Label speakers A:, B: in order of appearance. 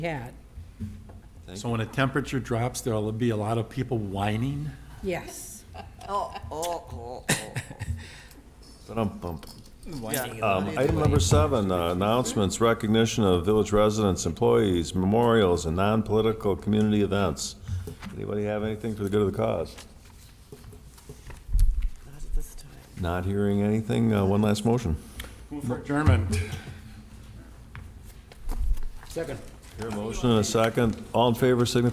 A: had,
B: So when the temperature drops, there'll be a lot of people whining?
A: yes.
C: Ba-dum-bum. Um, Item number seven, uh, announcements, recognition of village residents, employees, memorials, and non-political community events. Anybody have anything for the good of the cause? Not hearing anything, uh, one last motion.
B: Move for adjournment.
C: Motion and a second, all in favor signify